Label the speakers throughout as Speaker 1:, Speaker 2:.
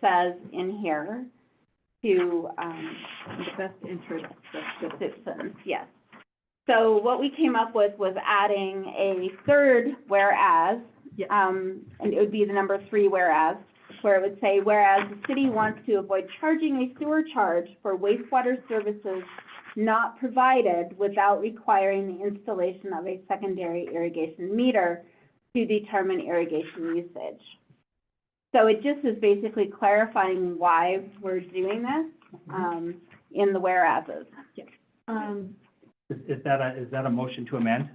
Speaker 1: says in here to, um,
Speaker 2: in the best interest of the
Speaker 1: citizens, yes. So what we came up with was adding a third whereas,
Speaker 2: Yeah.
Speaker 1: um, and it would be the number three whereas, where it would say, whereas the city wants to avoid charging a sewer charge for wastewater services not provided without requiring the installation of a secondary irrigation meter to determine irrigation usage. So it just is basically clarifying why we're doing this,
Speaker 3: Mm-hmm.
Speaker 1: um, in the whereases.
Speaker 2: Um,
Speaker 3: Is, is that a, is that a motion to amend?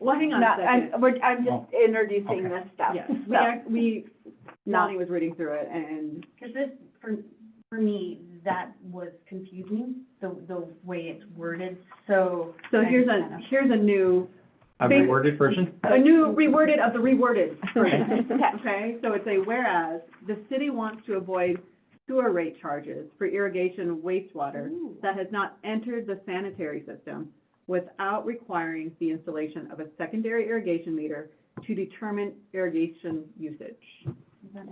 Speaker 2: well, hang on
Speaker 1: No,
Speaker 2: a
Speaker 1: I'm, oh,
Speaker 2: second.
Speaker 1: we're, I'm just introducing
Speaker 3: Oh, okay.
Speaker 1: this stuff,
Speaker 2: Yes, we,
Speaker 1: so,
Speaker 2: act- we,
Speaker 1: not,
Speaker 2: Lonnie was reading through it and,
Speaker 4: Because this, for, for me, that was confusing, the, the way it's worded, so.
Speaker 2: so here's a, here's a new,
Speaker 3: A
Speaker 2: Basi-
Speaker 3: reworded version?
Speaker 2: a new reworded of the reworded version.
Speaker 1: Okay.
Speaker 2: Okay, so it's a whereas, the city wants to avoid sewer rate charges for irrigation wastewater that has not entered the sanitary system without requiring the installation of a secondary irrigation meter to determine irrigation usage.
Speaker 5: I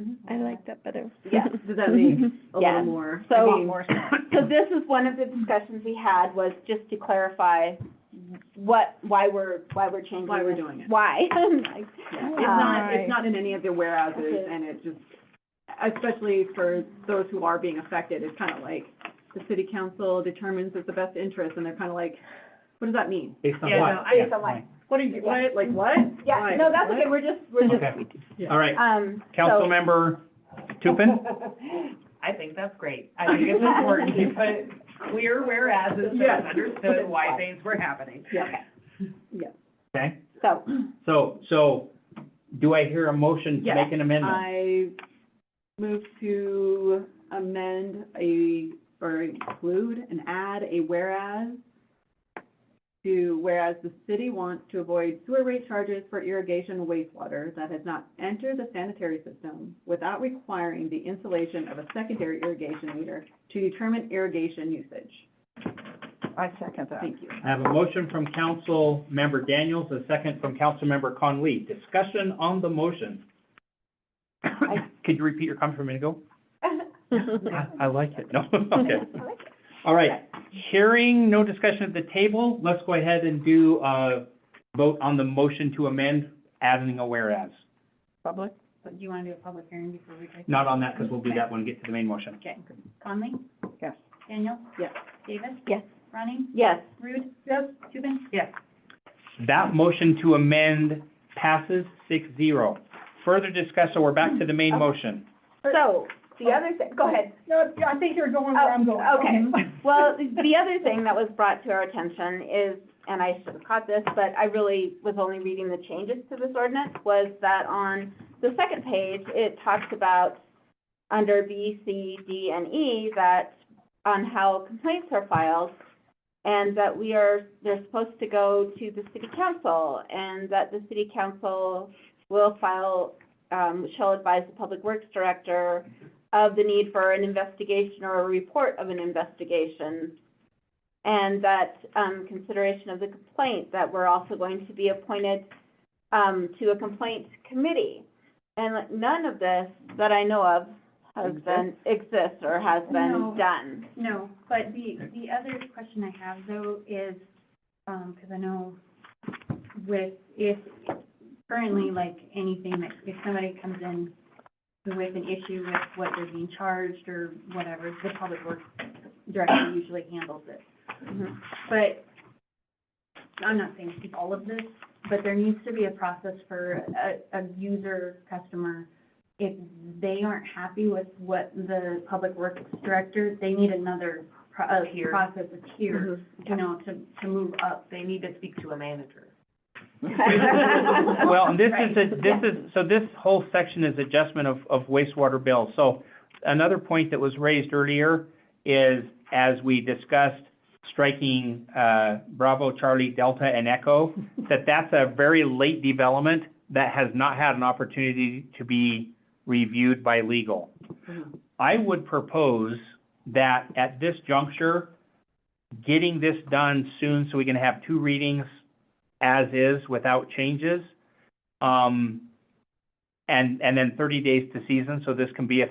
Speaker 3: Mm-hmm.
Speaker 5: like that better.
Speaker 1: yeah.
Speaker 2: Does that make a
Speaker 1: Yeah.
Speaker 2: little more?
Speaker 1: So-
Speaker 2: I
Speaker 1: A lot
Speaker 2: mean,
Speaker 1: So this is one of the discussions we had, was just to clarify what, why we're, why we're changing
Speaker 2: Why we're
Speaker 1: this.
Speaker 2: doing it.
Speaker 1: Why? Like,
Speaker 2: Yeah, It's not,
Speaker 5: Right.
Speaker 2: it's not in any of the whereases,
Speaker 1: Okay.
Speaker 2: and it just, especially for those who are being affected, it's kind of like, the city council determines it's the best interest, and they're kind of like, what does that mean?
Speaker 3: Based on
Speaker 2: Yeah,
Speaker 3: what?
Speaker 2: no, I-
Speaker 1: Based on what?
Speaker 2: What are you, what, like, what?
Speaker 1: Yeah,
Speaker 2: Why?
Speaker 1: no, that's
Speaker 2: What?
Speaker 1: okay, we're just, we're just,
Speaker 3: Okay, all right.
Speaker 1: um, so.
Speaker 3: Councilmember Tupin?
Speaker 6: I think that's great. I think it's important to put clear whereas so
Speaker 2: Yes.
Speaker 6: it's understood why things were happening.
Speaker 1: Okay,
Speaker 3: Okay,
Speaker 1: so,
Speaker 3: so, so do I hear a motion to
Speaker 2: Yes,
Speaker 3: make an amendment?
Speaker 2: I move to amend a, or include and add a whereas to, whereas the city wants to avoid sewer rate charges for irrigation wastewater that has not entered the sanitary system without requiring the installation of a secondary irrigation meter to determine irrigation usage.
Speaker 5: I second that.
Speaker 2: Thank you.
Speaker 3: I have a motion from Councilmember Daniels, a second from Councilmember Conley. Discussion on the motion. Could you repeat your comment from a minute ago? I, I like it. No, okay. All right, hearing no discussion at the table, let's go ahead and do a vote on the motion to amend, adding a whereas.
Speaker 5: Public?
Speaker 4: But do you want to do a public hearing before we take?
Speaker 3: Not on that, because we'll do that when we get to the main motion.
Speaker 4: Okay. Conley?
Speaker 5: Yes.
Speaker 4: Daniel?
Speaker 2: Yes.
Speaker 4: Davis?
Speaker 5: Yes.
Speaker 4: Ronnie?
Speaker 1: yes,
Speaker 4: Rude? Yes. Tubin?
Speaker 6: Yes.
Speaker 3: That motion to amend passes six zero. Further discussion, so we're back to the main motion.
Speaker 1: so, the other thing, go ahead.
Speaker 4: No, I think you're going
Speaker 1: where I'm going.
Speaker 2: Oh,
Speaker 1: okay. Well, the other thing that was brought to our attention is, and I should have caught this, but I really was only reading the changes to this ordinance, was that on the second page, it talks about under B, C, D, and E, that on how complaints are filed, and that we are, they're supposed to go to the city council, and that the city council will file, um, shall advise the public works director of the need for an investigation or a report of an investigation. And that, um, consideration of the complaint, that we're also going to be appointed, um, to a complaint committee. And like, none of this that I know of has been, exists or has
Speaker 4: No.
Speaker 1: been done.
Speaker 4: No, but the, the other question I have though is, um, because I know with, if currently, like, anything that, if somebody comes in with an issue with what they're being charged or whatever, the public works director usually handles it.
Speaker 1: Mhm.
Speaker 4: But, I'm not saying keep all of this, but there needs to be a process for a, a user, customer, if they aren't happy with what the public works director, they need another pro- uh,
Speaker 6: Tier.
Speaker 4: process, a tier, you know, to, to move up.
Speaker 6: They need to speak to a manager.
Speaker 3: Well, and this is, a- this is, so this whole section is adjustment of, of wastewater bills. So another point that was raised earlier is, as we discussed, striking, uh, Bravo, Charlie, Delta, and Echo, that that's a very late development that has not had an opportunity to be reviewed by legal.
Speaker 2: Mhm.
Speaker 3: I would propose that at this juncture, getting this done soon so we can have two readings as is without changes, um, and, and then thirty days to season, so this can be a